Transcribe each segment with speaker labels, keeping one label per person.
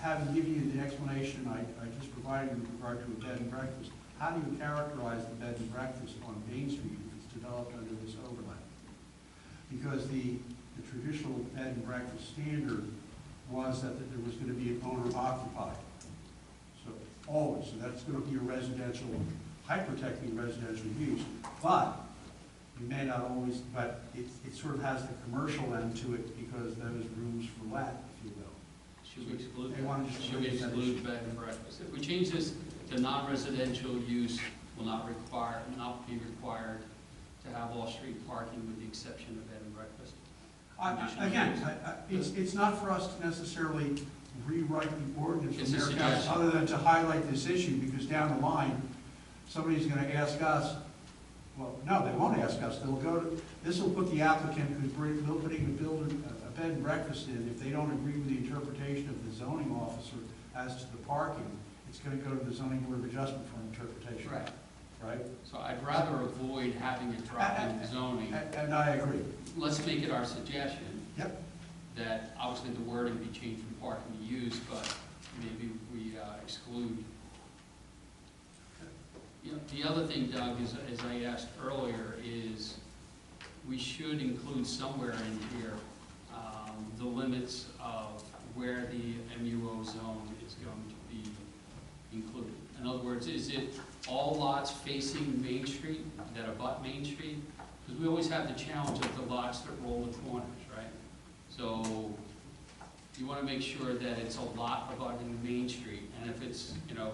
Speaker 1: having given you the explanation I, I just provided in regard to a bed and breakfast, how do you characterize the bed and breakfast on Main Street that's developed under this overlay? Because the, the traditional bed and breakfast standard was that there was gonna be an owner occupied. So, always, so that's gonna be a residential, hyper-technical residential use. But, you may not always, but it, it sort of has the commercial end to it because those rooms for let, if you will.
Speaker 2: Should we exclude,
Speaker 1: They want to just
Speaker 2: should we
Speaker 1: remove that
Speaker 2: exclude bed and breakfast? If we change this to non-residential use will not require, not be required to have off-street parking with the exception of bed and breakfast?
Speaker 1: I- I- Again, I- I- it's, it's not for us to necessarily rewrite the ordinance
Speaker 2: It's a
Speaker 1: from their council,
Speaker 2: suggestion.
Speaker 1: other than to highlight this issue, because down the line, somebody's gonna ask us, well, no, they won't ask us, they'll go to, this will put the applicant who's bring- who's putting a building, a bed and breakfast in, if they don't agree with the interpretation of the zoning officer as to the parking, it's gonna go to the zoning board of adjustment for interpretation. Right?
Speaker 2: So I'd rather avoid having a drop in zoning.
Speaker 1: And, and I agree.
Speaker 2: Let's make it our suggestion
Speaker 1: Yep.
Speaker 2: that obviously the wording be changed from parking to use, but maybe we uh, exclude. You know, the other thing, Doug, is, as I asked earlier, is we should include somewhere in here, um, the limits of where the MUO zone is going to be included. In other words, is it all lots facing Main Street that abut Main Street? Because we always have the challenge of the lots that roll the corners, right? So you want to make sure that it's a lot abutting Main Street, and if it's, you know,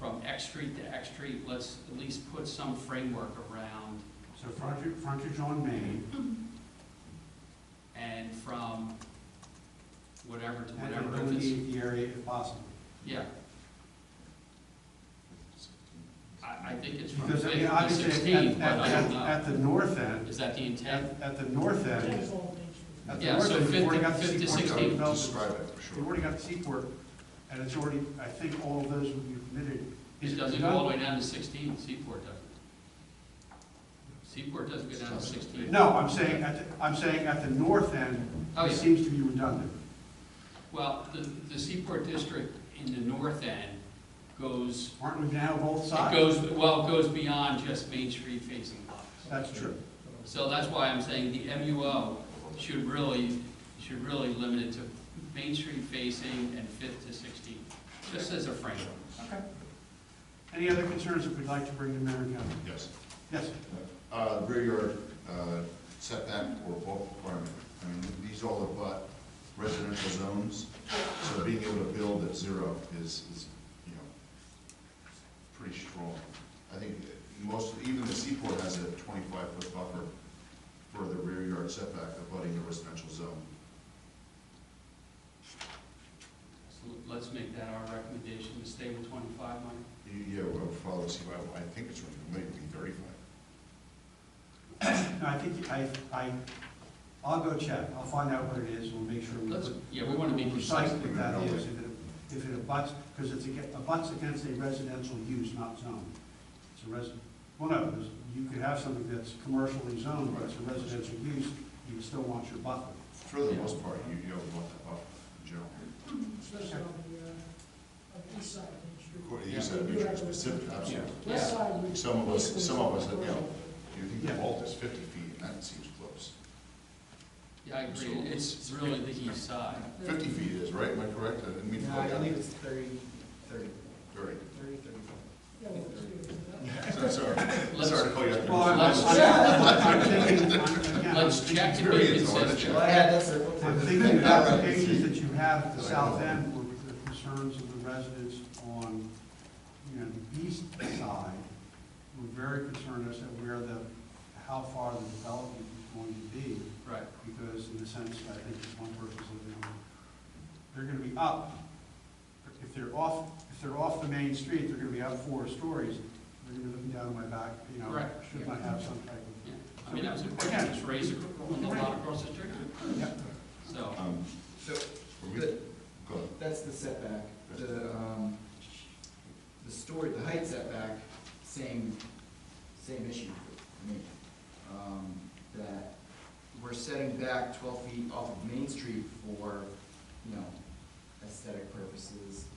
Speaker 2: from X Street to X Street, let's at least put some framework around,
Speaker 1: So frontage, frontage on Main,
Speaker 2: and from whatever to
Speaker 1: And
Speaker 2: whatever. if it's-
Speaker 1: delineate the area if possible.
Speaker 2: Yeah. I, I think it's from
Speaker 1: Because, I
Speaker 2: fifth
Speaker 1: mean,
Speaker 2: to
Speaker 1: obviously, at,
Speaker 2: sixteen,
Speaker 1: at,
Speaker 2: but I don't
Speaker 1: at-
Speaker 2: know.
Speaker 1: at the north end,
Speaker 2: Is that the intent?
Speaker 1: at, at the north end,
Speaker 3: That's
Speaker 1: at
Speaker 3: all Main Street.
Speaker 1: the
Speaker 2: Yeah,
Speaker 1: north
Speaker 2: so
Speaker 1: end, you've
Speaker 2: fifth
Speaker 1: already
Speaker 2: to-
Speaker 1: got the
Speaker 2: fifth to
Speaker 1: Seaport.
Speaker 2: 16.
Speaker 1: Development.
Speaker 4: Describe it, for
Speaker 1: You've
Speaker 4: sure.
Speaker 1: already got the Seaport, and it's already, I think all of those would be permitted.
Speaker 2: It doesn't go all the way down to sixteen, Seaport doesn't. Seaport doesn't go down to sixteen.
Speaker 1: No, I'm saying, at, the- I'm saying at the north end,
Speaker 2: Oh,
Speaker 1: it
Speaker 2: yeah.
Speaker 1: seems to be redundant.
Speaker 2: Well, the, the Seaport District in the north end goes,
Speaker 1: Aren't we now both
Speaker 2: it
Speaker 1: sides?
Speaker 2: goes, well, it goes beyond just Main Street facing lots.
Speaker 1: That's true.
Speaker 2: So that's why I'm saying the MUO should really, should really limit it to Main Street facing and Fifth to Sixteen, just as a framework.
Speaker 1: Okay. Any other concerns that we'd like to bring to Marin County?
Speaker 4: Yes.
Speaker 1: Yes,
Speaker 4: Uh, rear yard uh, setback or bulk requirement, I mean, these all abut residential zones, so being able to build at zero is, is, you know, pretty strong. I think most, even the Seaport has a twenty-five foot buffer for the rear yard setback abutting the residential zone.
Speaker 2: So let's make that our recommendation, to stay with twenty-five, Mike.
Speaker 4: You- Yeah, well, follow, see, I I think it's, maybe thirty-five.
Speaker 1: no, I think, I, I, I'll go check, I'll find out what it is, we'll make sure we
Speaker 2: Let's,
Speaker 1: put
Speaker 2: yeah, we want to be precise.
Speaker 1: Precisely that is, if it, if it abuts, because it's, aga- abuts against a residential use, not zone. It's a res, well, no, there's- you could have something that's commercially zoned, but it's a residential use, you still want your buffer.
Speaker 4: For the most part, you, you don't want that buffer in general.
Speaker 3: Especially on the, uh, on the east side of Main Street.
Speaker 4: According to you said, it's very specific, absolutely.
Speaker 3: West side, we-
Speaker 4: Some of us- some of us,
Speaker 3: basically-
Speaker 4: yeah. You think the vault is fifty feet, and that seems close.
Speaker 2: Yeah, I agree, it's really the east side.
Speaker 4: Fifty feet is, right, am I correct? I didn't mean to.
Speaker 5: No, I believe it's thirty, thirty,
Speaker 4: Very,
Speaker 5: thirty, thirty-five.
Speaker 3: Yeah, well, it's-
Speaker 4: sorry, sorry,
Speaker 2: Let's-
Speaker 4: sorry to call you
Speaker 1: Well,
Speaker 4: out.
Speaker 1: I'm,
Speaker 2: Let's-
Speaker 1: I'm, I'm thinking, I'm, again, I'm
Speaker 2: Let's check
Speaker 1: thinking,
Speaker 2: and be
Speaker 4: Experience, aren't
Speaker 2: consistent.
Speaker 4: you?
Speaker 5: Well, I had, that's a.
Speaker 1: I'm thinking of applications that you have at the south end, where the concerns of the residents on, you know, the east side, were very concerned as to where the, how far the development is going to be.
Speaker 2: Right.
Speaker 1: because in a sense, I think it's one person's living on, they're gonna be up. If they're off, if they're off the main street, they're gonna be up four stories, they're gonna be looking down my back, you know,
Speaker 2: Right.
Speaker 1: should I have some type of.
Speaker 2: Yeah, I mean, that was a question that's raised on the lot across the street.
Speaker 1: Yeah.
Speaker 2: So,
Speaker 4: Um,
Speaker 5: So,
Speaker 4: were we-
Speaker 5: the-
Speaker 4: Go ahead.
Speaker 5: that's the setback, the, um, the story, the height setback, same, same issue for me. Um, that we're setting back twelve feet off of Main Street for, you know, aesthetic purposes